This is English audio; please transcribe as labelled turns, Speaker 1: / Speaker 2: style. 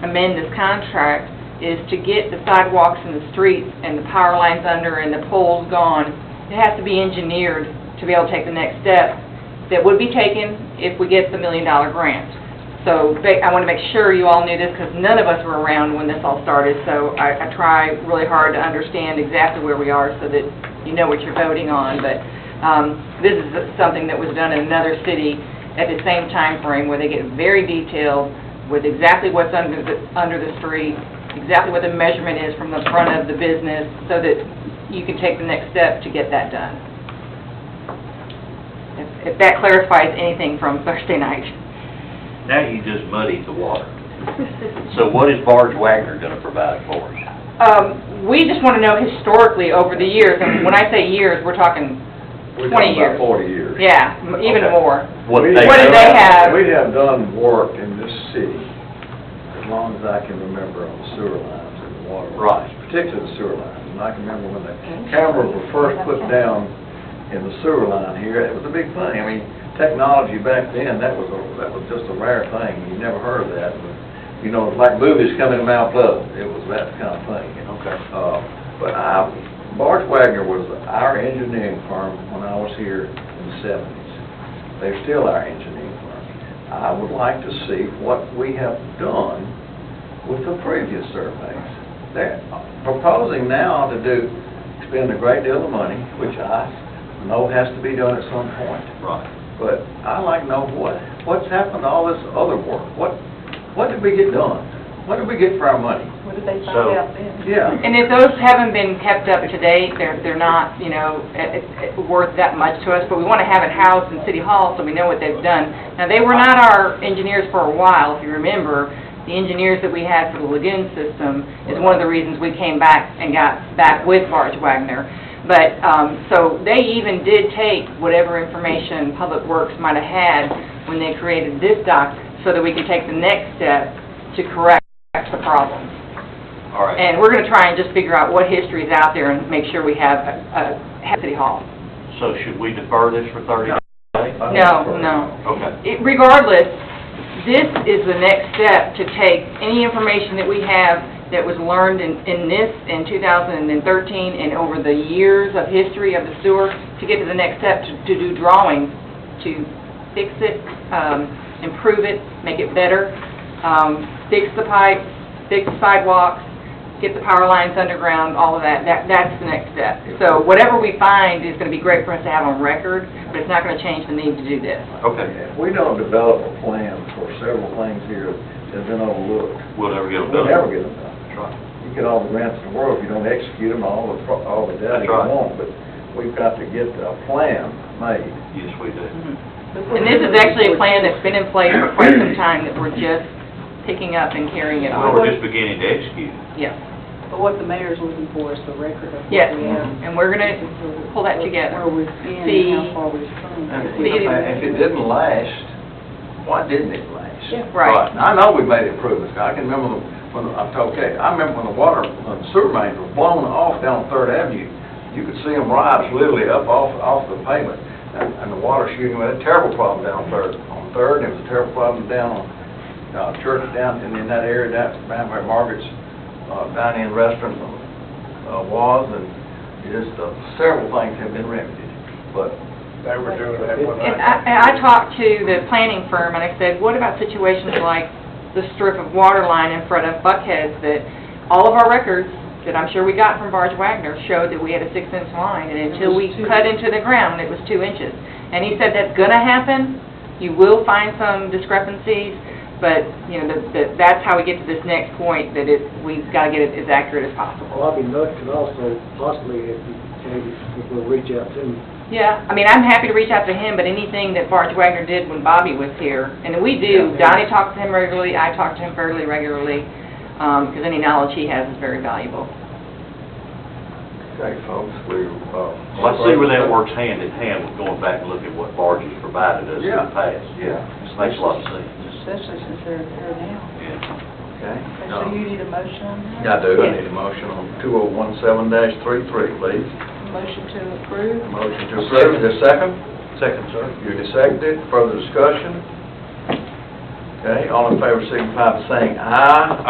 Speaker 1: amend this contract is to get the sidewalks and the streets and the power lines under and the poles gone. It has to be engineered to be able to take the next step that would be taken if we get the million-dollar grant. So ba- I want to make sure you all knew this because none of us were around when this all started. So I I try really hard to understand exactly where we are so that you know what you're voting on. But um, this is something that was done in another city at the same time frame, where they get very detailed with exactly what's under the, under the street, exactly what the measurement is from the front of the business, so that you can take the next step to get that done. If- If that clarifies anything from Thursday night.
Speaker 2: Now you just muddied the water. So what is Barge Wagner gonna provide for us?
Speaker 1: Um, we just want to know historically over the years, and when I say years, we're talking,
Speaker 3: We're
Speaker 1: 20
Speaker 3: talking
Speaker 1: years.
Speaker 3: about forty years.
Speaker 1: yeah, m- even
Speaker 2: Okay.
Speaker 1: more.
Speaker 2: What
Speaker 3: We-
Speaker 2: they
Speaker 1: What do
Speaker 2: do?
Speaker 1: they have?
Speaker 3: We have done work in this city, as long as I can remember, on the sewer lines and the water.
Speaker 2: Right.
Speaker 3: lines, Particularly the sewer lines, and I can remember when the cameras were first put down in the sewer line here, it was a big thing. I mean, technology back then, that was, a- that was just a rare thing, you never heard of that. You know, it's like movies coming to Mount Pleasant, it was that kind of thing, you know?
Speaker 2: Okay.
Speaker 3: Uh, But I, Bart Wagner was our engineering firm when I was here in the seventies. They're still our engineering firm. I would like to see what we have done with the previous surveys. They're proposing now to do, spend a great deal of money, which I know has to be done at some point.
Speaker 2: Right.
Speaker 3: But I'd like to know what, what's happened to all this other work? What, what did we get done? What did we get for our money?
Speaker 4: What did they find
Speaker 2: So-
Speaker 4: out then?
Speaker 3: Yeah.
Speaker 1: And if those haven't been kept up to date, they're, they're not, you know, eh, eh, worth that much to us, but we want to have it housed in City Hall so we know what they've done. Now, they were not our engineers for a while, if you remember. The engineers that we had for the lagoon system is one of the reasons we came back and got back with Barge Wagner. But, um, so they even did take whatever information Public Works might have had when they created this doc, so that we could take the next step to correct the problem.
Speaker 2: All right.
Speaker 1: And we're going to try and just figure out what history is out there and make sure we have, uh, have City Hall.
Speaker 2: So should we defer this for thirty days?
Speaker 1: No, no.
Speaker 2: Okay.
Speaker 1: It- Regardless, this is the next step to take any information that we have that was learned in, in this, in 2013, and over the years of history of the sewer, to get to the next step, to to do drawings, to fix it, um, improve it, make it better, um, fix the pipes, fix the sidewalks, get the power lines underground, all of that, that, that's the next step. So whatever we find is gonna be great for us to have on record, but it's not gonna change the need to do this.
Speaker 2: Okay.
Speaker 3: If we don't develop a plan for several things here that have been overlooked,
Speaker 2: We'll never get
Speaker 3: we'll
Speaker 2: it done.
Speaker 3: never get them done.
Speaker 2: That's right.
Speaker 3: You get all the grants in the world, if you don't execute them, all the, pro- all the data
Speaker 2: That's
Speaker 3: you
Speaker 2: right.
Speaker 3: want, but we've got to get a plan made.
Speaker 2: Yes, we do.
Speaker 1: Mm-hmm. And this is actually a plan that's been in place for quite some time, that we're just picking up and carrying it
Speaker 2: Well,
Speaker 1: on.
Speaker 2: we're just beginning to execute.
Speaker 1: Yes,
Speaker 4: But what the mayor's looking for is the record of what we
Speaker 1: yes,
Speaker 4: have.
Speaker 1: and we're gonna pull that together.
Speaker 4: Where we've been
Speaker 1: See-
Speaker 4: and how far we've come.
Speaker 1: See, it is-
Speaker 3: If it didn't last, why didn't it last?
Speaker 4: Yeah.
Speaker 1: right.
Speaker 3: And I know we made improvements, I can remember when, I told Kate, I remember when the water, when the sewer mains were blown off down Third Avenue, you could see them rise literally up off, off the pavement, and, and the water shooting, we had a terrible problem down Third, on Third, and it was a terrible problem down on, uh, Church down, and in that area, down, down where Margaret's, uh, dining and restaurant, uh, was, and just, uh, several things have been remedied, but. They were doing that one
Speaker 1: And I, and I talked to the planning firm, and I said, what about situations like the strip of water line in front of Buckhead's that all of our records, that I'm sure we got from Barge Wagner, showed that we had a six-inch line, and until we
Speaker 4: It was two.
Speaker 1: cut into the ground, it was two inches. And he said, that's gonna happen, you will find some discrepancies, but, you know, that- that, that's how we get to this next point, that it, we've gotta get it as accurate as possible.
Speaker 5: Well, I'd be nuts, and also possibly if you can, if we'll reach out to him.
Speaker 1: Yeah, I mean, I'm happy to reach out to him, but anything that Bart Wagner did when Bobby was here, and we do, Donnie talks to him regularly, I talk to him fairly regularly, because any knowledge he has is very valuable.
Speaker 3: Okay, folks, we, uh.
Speaker 2: Well, I see where that works hand in hand with going back and looking at what Barge has provided us in
Speaker 3: Yeah.
Speaker 2: the past.
Speaker 3: Yeah.
Speaker 2: This Makes a lot of sense.
Speaker 4: Especially since they're there now.
Speaker 2: Yeah.
Speaker 3: Okay.
Speaker 4: Okay,
Speaker 2: No.
Speaker 4: So you need a motion on
Speaker 3: I
Speaker 4: that?
Speaker 3: do, I need a motion on two oh one seven dash three three, please.
Speaker 4: Motion to approve?
Speaker 3: Motion to approve, is there a second? Second, sir. You seconded, further discussion? Okay, all in favor, signify by saying aye.